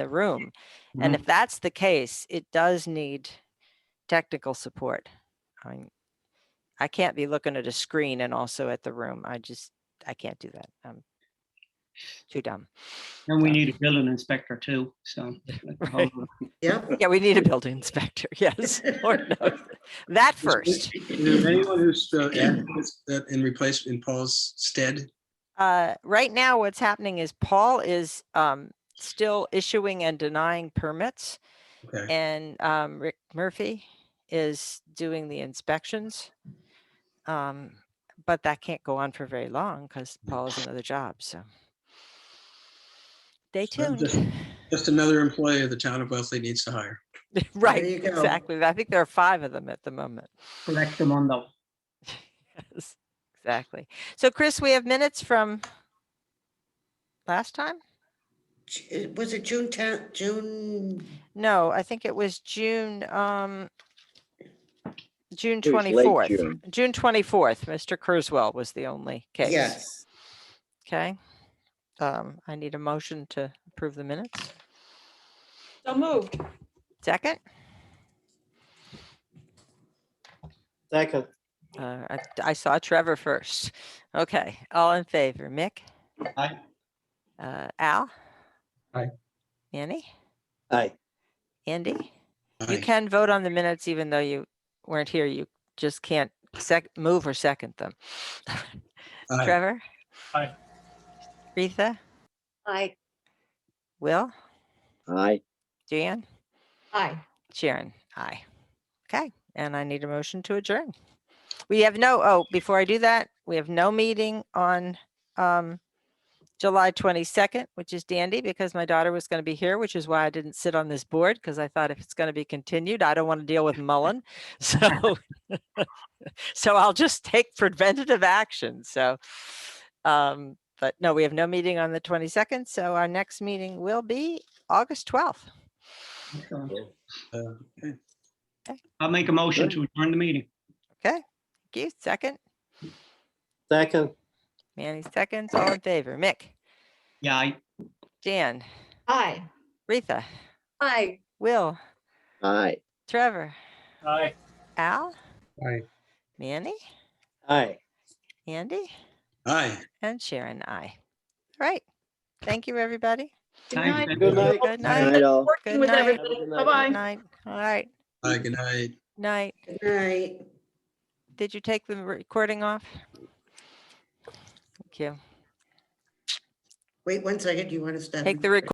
the room. And if that's the case, it does need technical support. I mean, I can't be looking at a screen and also at the room. I just, I can't do that. I'm too dumb. And we need a building inspector too, so. that's a whole Right. other- Yep. Yeah, we need a building inspector. Yes, Lord knows. That first. Is there anyone who's uh, advocates that in replace in Paul's stead? Uh, right now, what's happening is Paul is, um, still issuing and denying permits. Okay, And um, Rick Murphy is doing the inspections. Um, But that can't go on for very long because Mm. Paul has another job, so. Stay So I'm tuned. just- just another employee of the town of Wesley needs to hire. Right, you go. exactly. I think there are five of them at the moment. Correct them on though. Yes, Exactly. So Chris, we have minutes from last time? Ju- Was it June tenth, June? No, I think it was June, um, June It was late 24th. June. June 24th, Mr. Kurzwell was the only case. Yes. Okay. Um, I need a motion to approve the minutes. So moved. Second, Second, uh, I, I saw Trevor first. Okay, all in favor, Mick? Aye. Uh, Al? Aye. Annie? aye. Andy? You Aye. can vote on the minutes even though you weren't here. You just can't sec, move or second them. Aye. Trevor? Aye. Retha? Aye. Will? Aye, Jan? Aye. Sharon, aye. Okay, and I need a motion to adjourn. We have no, oh, before I do that, we have no meeting on um July 22nd, which is dandy because my daughter was going to be here, which is why I didn't sit on this board because I thought if it's going to be continued, I don't want to deal with Mullen. So so I'll just take preventative action. So um but no, we have no meeting on the 22nd, so our next meeting will be August 12th. Excellent. Uh, okay. I'll make a motion to adjourn the meeting. Thank you. Second? Second, Manny seconds, all in favor. Mick, Yeah, I- Jan, Aye. Retha, Aye. Will, aye. Trevor. Aye. Al, Aye. Manny, aye. Andy, Aye. and Sharon, I. Right. Thank you, everybody. Thanks, night. Good Aye. night. Good Aye, night. all. Good With night. everybody. Have a good night. Bye-bye. Night. All right. Aye, good night. Night. Good night. Did you take the recording off? Thank you. Wait one second. Do you want to stop? Take the recording